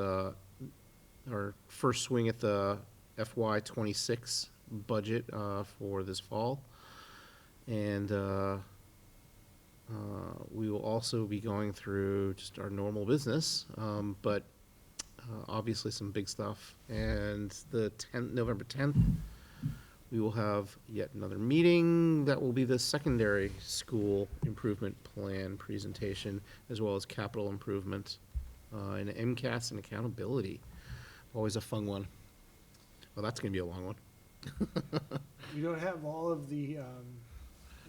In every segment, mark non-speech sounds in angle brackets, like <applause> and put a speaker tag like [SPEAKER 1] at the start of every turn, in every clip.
[SPEAKER 1] the, our first swing at the FY twenty-six budget, uh, for this fall. And, uh, uh, we will also be going through just our normal business, um, but, uh, obviously some big stuff. And the tenth, November tenth, we will have yet another meeting. That will be the secondary school improvement plan presentation, as well as capital improvement, uh, and MCAS and accountability. Always a fun one. Well, that's gonna be a long one.
[SPEAKER 2] We don't have all of the, um,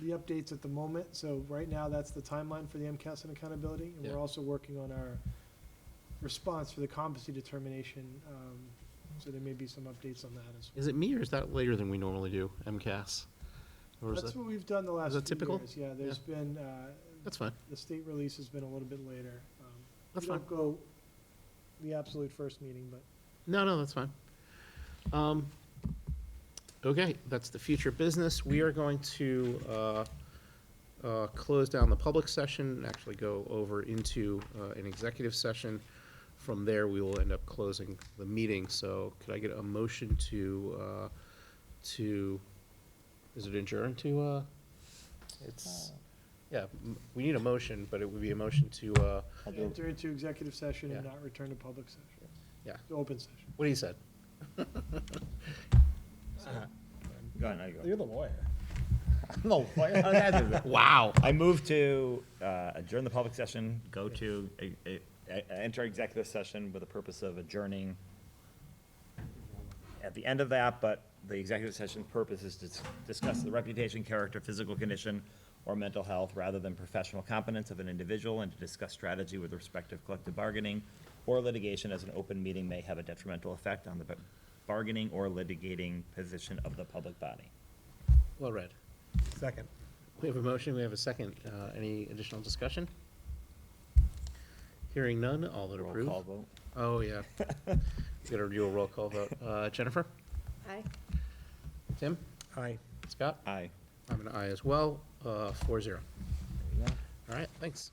[SPEAKER 2] the updates at the moment, so right now, that's the timeline for the MCAS and accountability. And
[SPEAKER 1] Yeah.
[SPEAKER 2] we're also working on our response for the competency determination, um, so there may be some updates on that as well.
[SPEAKER 1] Is it me or is that later than we normally do, MCAS? Or is
[SPEAKER 2] That's
[SPEAKER 1] that,
[SPEAKER 2] what we've done the last
[SPEAKER 1] that
[SPEAKER 2] few
[SPEAKER 1] typical?
[SPEAKER 2] years, yeah, there's been, uh,
[SPEAKER 1] that's fine,
[SPEAKER 2] the state release has been a little bit later. Um,
[SPEAKER 1] that's
[SPEAKER 2] we
[SPEAKER 1] fine.
[SPEAKER 2] don't go the absolute first meeting, but
[SPEAKER 1] No, no, that's fine. Um, okay, that's the future business. We are going to, uh, uh, close down the public session, and actually go over into, uh, an executive session. From there, we will end up closing the meeting, so could I get a motion to, uh, to, is it adjourn to, uh, it's, yeah, m- we need a motion, but it would be a motion to, uh,
[SPEAKER 2] enter into executive session and
[SPEAKER 1] Yeah.
[SPEAKER 2] not return to public session.
[SPEAKER 1] Yeah.
[SPEAKER 2] To Open session.
[SPEAKER 1] what do you said?
[SPEAKER 3] Go on, now you go.
[SPEAKER 4] You're the lawyer. Oh,
[SPEAKER 3] No, why-
[SPEAKER 4] <laughs>
[SPEAKER 3] how did I do that?
[SPEAKER 1] Wow.
[SPEAKER 3] I move to uh, adjourn the public session, go to, a- a- a- enter executive session with the purpose of adjourning. At the end of that, but the executive session purpose is to s- discuss the reputation, character, physical condition, or mental health, rather than professional competence of an individual, and to discuss strategy with respect to collective bargaining or litigation, as an open meeting may have a detrimental effect on the b- bargaining or litigating position of the public body.
[SPEAKER 1] Well read.
[SPEAKER 4] Second.
[SPEAKER 1] We have a motion, we have a second. Uh, Any additional discussion? Hearing none, all that
[SPEAKER 3] Roll
[SPEAKER 1] approve?
[SPEAKER 3] call vote.
[SPEAKER 1] Oh,
[SPEAKER 3] <laughs>
[SPEAKER 1] yeah. Got to do a roll call vote. Uh, Jennifer?
[SPEAKER 5] Aye.
[SPEAKER 1] Tim?
[SPEAKER 4] Aye.
[SPEAKER 1] Scott?
[SPEAKER 3] Aye.
[SPEAKER 1] I'm an aye as well, four zero. Uh, All right, thanks.